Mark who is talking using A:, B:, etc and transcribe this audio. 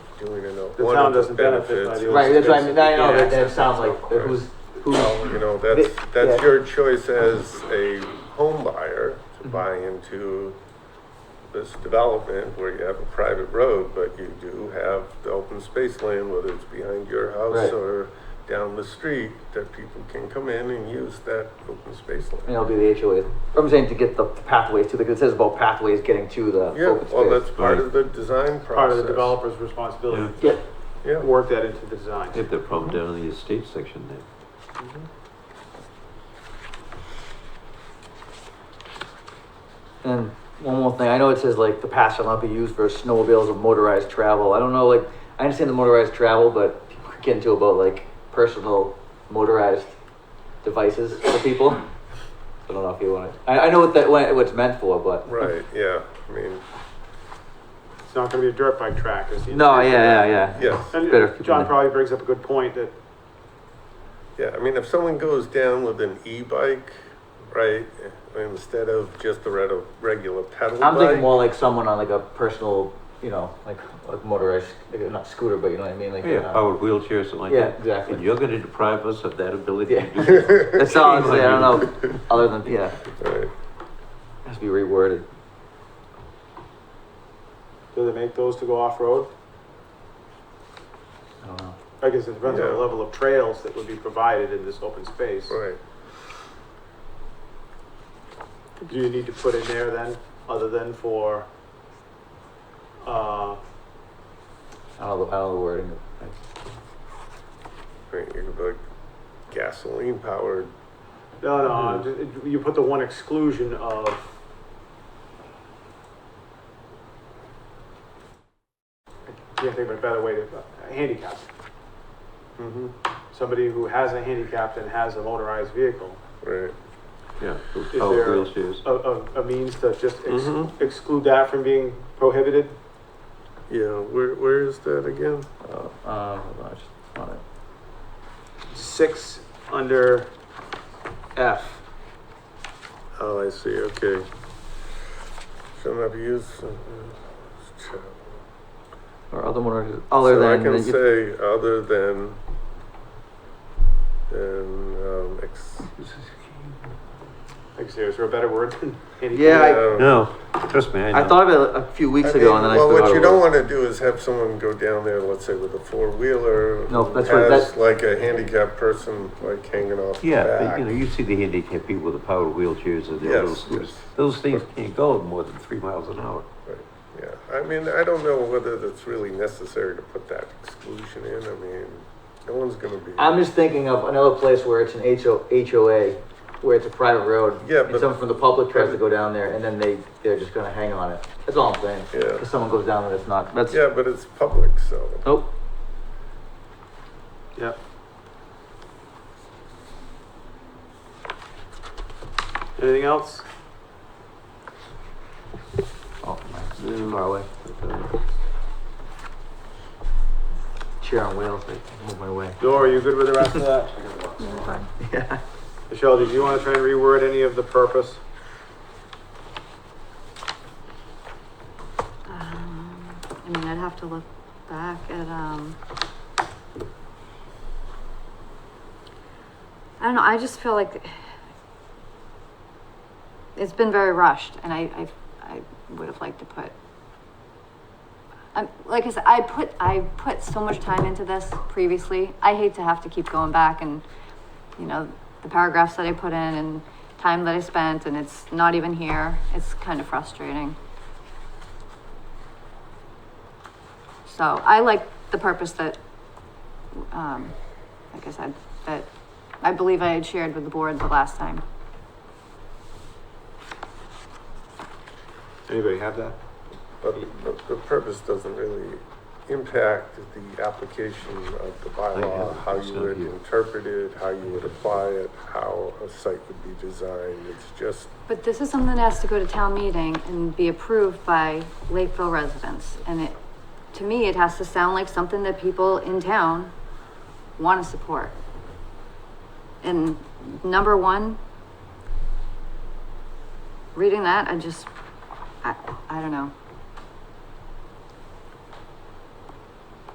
A: doing it,
B: The
A: one
B: town
A: of the
B: doesn't benefit by
A: benefits.
B: the
A: is-
C: Right, that's what I mean, I know,
A: Yeah.
C: that, that sounds like, who's, who's,
A: Well, You know, that's, that's
C: Yeah.
A: your choice as a home buyer to
C: Mm-hmm.
A: buy into this development where you have a private road, but you do have the open space land, whether it's behind your house
C: Right.
A: or down the street, that people can come in and use that open space
C: you
A: land.
C: know, do the HOA, I'm saying to get the pathways to, because it says about pathways getting to the
A: Yeah,
C: open
A: well,
C: space.
A: that's part of the design process.
B: Part of the developer's responsibility
C: Yeah,
A: Yeah,
B: to work that into the design.
D: They have that problem down in the estate section there.
C: and one more thing, I know it says like the path shall not be used for snowmobiles or motorized travel, I don't know, like, I understand the motorized travel, but people are getting to about like personal motorized devices for people. I don't know if you want it, I, I know what that, what it's meant for, but.
A: right, yeah, I mean,
B: It's not gonna be a dirt bike track, is the.
C: No,
B: intent.
C: yeah, yeah, yeah.
A: yes.
C: Better
B: And
C: people
B: John
C: know.
B: probably brings up a good point that
A: Yeah, I mean, if someone goes down with an e-bike, right, instead of just a reg- regular pedal
C: I'm
A: bike,
C: thinking more like someone on like a personal, you know, like like motorized, like, not scooter, but you know what I mean, like
D: Yeah, oh.
C: uh,
D: powered wheelchair, something like
C: yeah,
D: that.
C: exactly.
D: And you're gonna deprive us of that ability to
C: Yeah.
D: do that?
C: That's all I'm saying. I don't know. Other than yeah,
A: right.
C: it has to be reworded.
B: Do they make those to go off-road?
C: I don't know.
B: I guess it depends on the
A: Yeah.
B: level of trails that would be provided in this open space.
A: Right.
B: Do you need to put in there then, other than for, uh,
C: I don't know. the- I don't know the wording.
A: Right, you could be like gasoline powered.
B: no, no, I'm ju- you put the one exclusion of I can't think of a better way to, uh, handicap.
A: Mm-hmm.
B: Somebody who has a handicap and has a motorized vehicle,
A: Right.
D: Yeah, those
B: Is
D: powered
B: there-
D: wheelchairs.
B: a, a, a means to just ex-
C: Mm-hmm.
A: Mhm.
B: exclude that from being prohibited?
A: Yeah. Where Where is that again?
C: Oh, um, hold on, I just found it.
B: Six under F.
A: Oh, I see. Okay. Shall not be used. uh,
C: Or other motorized. Other
A: so
C: than
A: I can
C: than you-
A: say other than than um, ex-
B: Like, is there is there a better word than handicap?
C: Yeah, I-
D: No, trust me, I know.
C: I thought of it a few weeks
A: I
C: ago,
A: mean,
C: and then
A: well,
C: I forgot.
A: what you
C: it
A: don't
C: was.
A: want to do is have someone go down there, let's say with a four wheeler,
C: No, that's what- that-
A: like a handicapped person like hanging off
D: Yeah,
A: the
D: but
A: back.
D: you know, you see the handicapped people with the powered wheelchairs and their little
A: Yes,
D: scooters.
A: yes.
D: Those things can't go more than three miles an hour.
A: yeah, I mean, I don't know whether that's really necessary to put that exclusion in. I mean, no one's going to be.
C: I'm just thinking of another place where it's an HO, HOA, where it's a private road.
A: Yeah,
C: And
A: but-
C: someone from the public tries to go down there and then they, they're just gonna hang on it. That's all I'm saying.
A: Yeah.
C: If someone goes down there, it's not, that's,
A: yeah, but it's public, so
C: nope.
B: Yep. Anything else?
C: Oh, my, far away. Chair on wheels, I move my way.
B: Dor, are you good with the rest of that?
C: Yeah.
B: Michelle, did you want to try and reword any of the purpose?
E: Um, I mean, I'd have to look back at, um, I don't know, I just feel like it's been very rushed and I, I, I would have liked to put, um, like I said, I put, I put so much time into this previously. I hate to have to keep going back and, you know, the paragraphs that I put in and time that I spent and it's not even here. It's kind of frustrating. So I like the purpose that, um, like I said, that I believe I had shared with the board the last time.
B: Anybody have that?
A: but the, the purpose doesn't really impact the application of the bylaw,
D: have it.
A: how
D: It's
A: you
D: not
A: would
D: here.
A: interpret it, how you would apply it, how a site would be designed. It's just
E: But this is something that has to go to town meeting and be approved by Lakeville residents. And it, to me, it has to sound like something that people in town want to support. And number one, reading that, I just, I, I don't know.